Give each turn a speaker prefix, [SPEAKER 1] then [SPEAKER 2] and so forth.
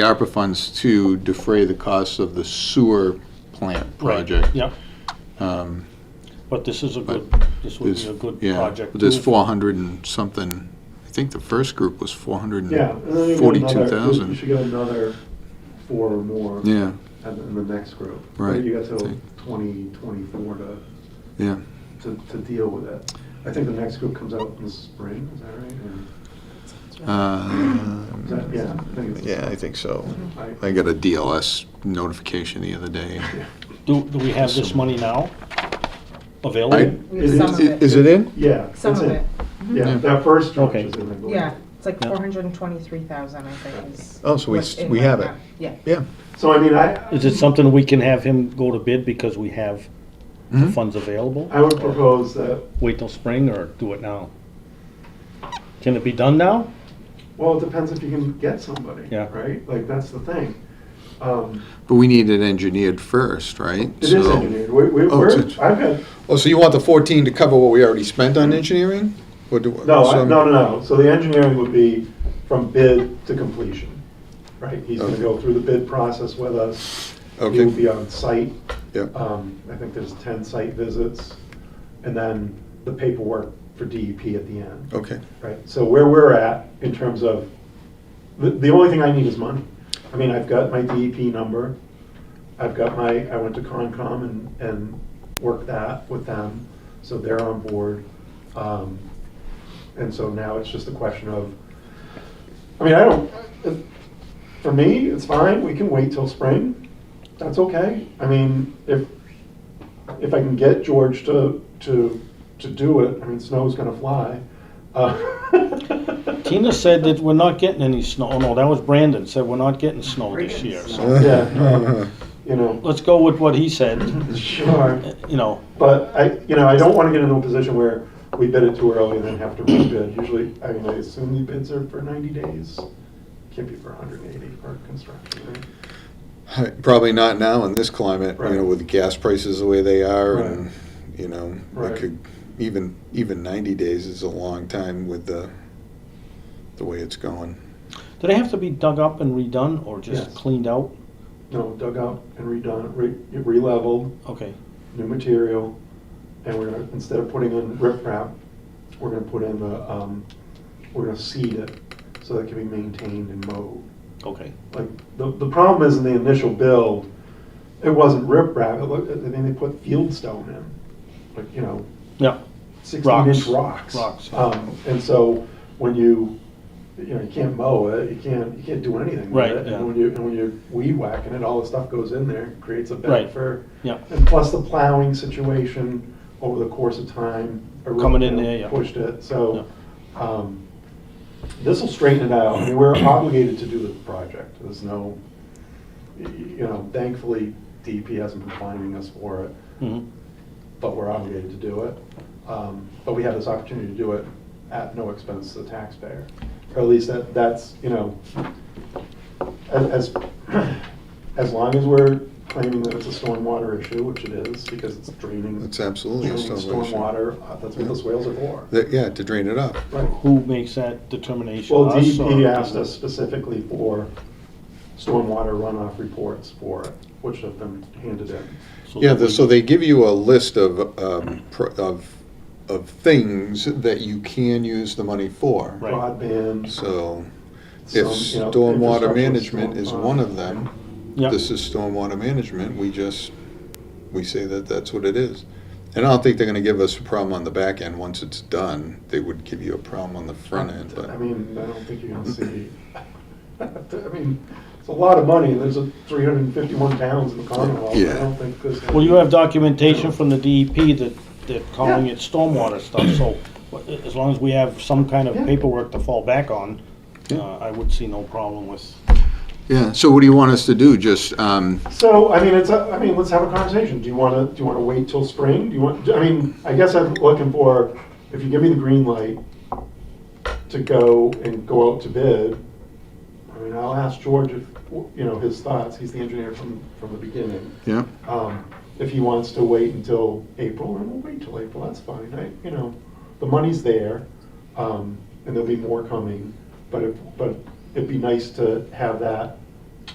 [SPEAKER 1] the ARPA funds to defray the costs of the sewer plant project.
[SPEAKER 2] Yep. But this is a good, this would
[SPEAKER 1] There's-
[SPEAKER 2] be a good
[SPEAKER 1] yeah,
[SPEAKER 2] project.
[SPEAKER 1] There's
[SPEAKER 2] too.
[SPEAKER 1] 400 and something, I think the first group was
[SPEAKER 3] Yeah, and then you get another- You
[SPEAKER 1] 442,000.
[SPEAKER 3] should get another four or more in
[SPEAKER 1] Yeah,
[SPEAKER 3] in the next group.
[SPEAKER 1] Right.
[SPEAKER 3] Then You got till
[SPEAKER 1] Take-
[SPEAKER 3] 2024 to,
[SPEAKER 1] yeah.
[SPEAKER 3] to, to deal with it. I think the next group comes out in the spring, is that right? Or- is that-
[SPEAKER 1] Um,
[SPEAKER 3] Yeah, I think it's.
[SPEAKER 1] Yeah, I think so.
[SPEAKER 3] I-
[SPEAKER 1] I got a DLS notification the other day.
[SPEAKER 2] Do, do we have this money now available?
[SPEAKER 1] I-
[SPEAKER 4] We have some of it.
[SPEAKER 1] Is it in?
[SPEAKER 3] Yeah. that's
[SPEAKER 4] Some of it, Mm-hmm.
[SPEAKER 3] Yeah,
[SPEAKER 1] Yeah.
[SPEAKER 3] that first tranche
[SPEAKER 2] Okay.
[SPEAKER 3] is in, I believe.
[SPEAKER 4] yeah. It's like
[SPEAKER 2] Yeah.
[SPEAKER 4] four hundred and twenty-three thousand, I think is.
[SPEAKER 1] Oh, so we
[SPEAKER 4] what's
[SPEAKER 1] s-
[SPEAKER 4] in
[SPEAKER 1] we
[SPEAKER 4] right
[SPEAKER 1] have it.
[SPEAKER 4] now. Yeah.
[SPEAKER 1] Yeah.
[SPEAKER 3] So I mean, I,
[SPEAKER 2] Is it something we can have him go to bid because we have the
[SPEAKER 1] Mhm.
[SPEAKER 2] funds available?
[SPEAKER 3] I would propose that,
[SPEAKER 2] Wait till spring or do it now? Can it be done now?
[SPEAKER 3] well, it depends if you can get somebody,
[SPEAKER 2] Yeah.
[SPEAKER 3] right? Like, that's the thing. Um,
[SPEAKER 1] But we need it engineered first, right?
[SPEAKER 3] It is
[SPEAKER 1] So-
[SPEAKER 3] engineered. We, we,
[SPEAKER 1] Oh,
[SPEAKER 3] we're,
[SPEAKER 1] it's a-
[SPEAKER 3] I've had
[SPEAKER 1] Oh, so you want the 14 to cover what we already spent on engineering? Or do-
[SPEAKER 3] No, I-
[SPEAKER 1] so-
[SPEAKER 3] no, no, no. So the engineering would be from bid to completion, right? He's gonna
[SPEAKER 1] Okay.
[SPEAKER 3] go through the bid process with us. He
[SPEAKER 1] Okay.
[SPEAKER 3] will be on site.
[SPEAKER 1] Yeah.
[SPEAKER 3] Um, I think there's ten site visits, and then the paperwork for DEP at the end,
[SPEAKER 1] Okay.
[SPEAKER 3] right? So where we're at in terms of, the, the only thing I need is money. I mean, I've got my DEP number. I've got my, I went to Concom and, and worked that with them, so they're on board. Um, And so now it's just a question of, I mean, I don't, it- for me, it's fine, we can wait till spring, that's okay. I mean, if, if I can get George to, to, to do it, I mean, snow's gonna fly. Uh,
[SPEAKER 2] Tina said that we're not getting any snow. Oh, no, that was Brandon, said we're not getting snow this
[SPEAKER 4] Brandon
[SPEAKER 2] year.
[SPEAKER 4] said.
[SPEAKER 2] So
[SPEAKER 3] Yeah. You know,
[SPEAKER 2] Let's go with what he said,
[SPEAKER 3] sure.
[SPEAKER 2] you know.
[SPEAKER 3] But I, you know, I don't want to get into a position where we bid it too early and then have to rebid. Usually, I mean, I assume the bids are for 90 days, can't be for 180 for construction, right?
[SPEAKER 1] Probably not now in this climate, you know,
[SPEAKER 3] Right.
[SPEAKER 1] with gas prices the way they are
[SPEAKER 3] Right.
[SPEAKER 1] and, you know,
[SPEAKER 3] Right.
[SPEAKER 1] it could, even, even 90 days is a long time with the, the way it's going.
[SPEAKER 2] Do they have to be dug up and redone or just
[SPEAKER 3] Yes.
[SPEAKER 2] cleaned out?
[SPEAKER 3] No, dug out and redone, re- re-leveled,
[SPEAKER 2] Okay,
[SPEAKER 3] new material, and we're gonna, instead of putting in riprap, we're gonna put in the, um, we're gonna seed it so that it can be maintained and mowed.
[SPEAKER 2] okay.
[SPEAKER 3] like, the, the problem is in the initial build, it wasn't riprap, it looked, I mean, they put field stone in, like, you know,
[SPEAKER 2] Yeah,
[SPEAKER 3] sixteen inch
[SPEAKER 2] Rocks.
[SPEAKER 3] rocks.
[SPEAKER 2] Rocks.
[SPEAKER 3] Um, and so, when you, you know, you can't mow it, you can't, you can't do anything with
[SPEAKER 2] Right,
[SPEAKER 3] it.
[SPEAKER 2] yeah.
[SPEAKER 3] And when you, and when you're weed whacking it, all the stuff goes in there, creates a
[SPEAKER 2] Right.
[SPEAKER 3] bed for.
[SPEAKER 2] Yeah.
[SPEAKER 3] And plus the plowing situation over the course of time. eroded
[SPEAKER 2] Coming in
[SPEAKER 3] it,
[SPEAKER 2] there, yeah.
[SPEAKER 3] Pushed it, so, um, this'll straighten it out. I mean, we're obligated to do the project. There's no, y- y- you know, thankfully, DEP hasn't been finding us for it
[SPEAKER 2] mhm.
[SPEAKER 3] but we're obligated to do it. Um, But we have this opportunity to do it at no expense to the taxpayer. Or at least that, that's, you know, as, as- as long as we're claiming that it's a stormwater issue, which it is, because it's draining.
[SPEAKER 1] It's absolutely a
[SPEAKER 3] draining
[SPEAKER 1] stormwater issue.
[SPEAKER 3] Stormwater, uh, that's what those whales are for.
[SPEAKER 1] That- Yeah, to drain it up.
[SPEAKER 3] Right.
[SPEAKER 2] Who makes that determination?
[SPEAKER 3] Well,
[SPEAKER 2] Us or-
[SPEAKER 3] DEP asked us specifically for stormwater runoff reports for it, which have been handed in.
[SPEAKER 2] So
[SPEAKER 1] Yeah,
[SPEAKER 2] that
[SPEAKER 1] the-
[SPEAKER 2] we-
[SPEAKER 1] so they give you a list of, um, pro- of, of things that you can use the money for.
[SPEAKER 2] Right.
[SPEAKER 3] Broadband.
[SPEAKER 1] So
[SPEAKER 3] some,
[SPEAKER 1] if
[SPEAKER 3] you know,
[SPEAKER 1] stormwater
[SPEAKER 3] infrastructure,
[SPEAKER 1] management is
[SPEAKER 3] storm-
[SPEAKER 1] one of them,
[SPEAKER 2] Yeah.
[SPEAKER 1] this is stormwater management, we just, we say that that's what it is. And I don't think they're gonna give us a problem on the back end, once it's done, they would give you a problem on the front end,
[SPEAKER 3] I
[SPEAKER 1] but,
[SPEAKER 3] mean, I don't think you're gonna see, I mean, it's a lot of money, there's a three hundred and fifty-one towns in the Commonwealth, I
[SPEAKER 1] Yeah.
[SPEAKER 3] don't think this.
[SPEAKER 2] Well, you have documentation from the DEP that, that calling it stormwater stuff, so wh- as long as we have some kind of
[SPEAKER 3] Yeah.
[SPEAKER 2] paperwork to fall back on,
[SPEAKER 1] Yeah.
[SPEAKER 2] uh, I would see no problem with,
[SPEAKER 1] yeah, so what do you want us to do, just, um,
[SPEAKER 3] So, I mean, it's, a- I mean, let's have a conversation, do you wanna, do you wanna wait till spring, do you want, I mean, I guess I'm looking for, if you give me the green light to go and go out to bid, I mean, I'll ask George if, you know, his thoughts, he's the engineer from, from the beginning.
[SPEAKER 1] yeah?
[SPEAKER 3] Um, If he wants to wait until April, then we'll wait till April, that's fine, I, you know, the money's there, um, and there'll be more coming, but if, but it'd be nice to have that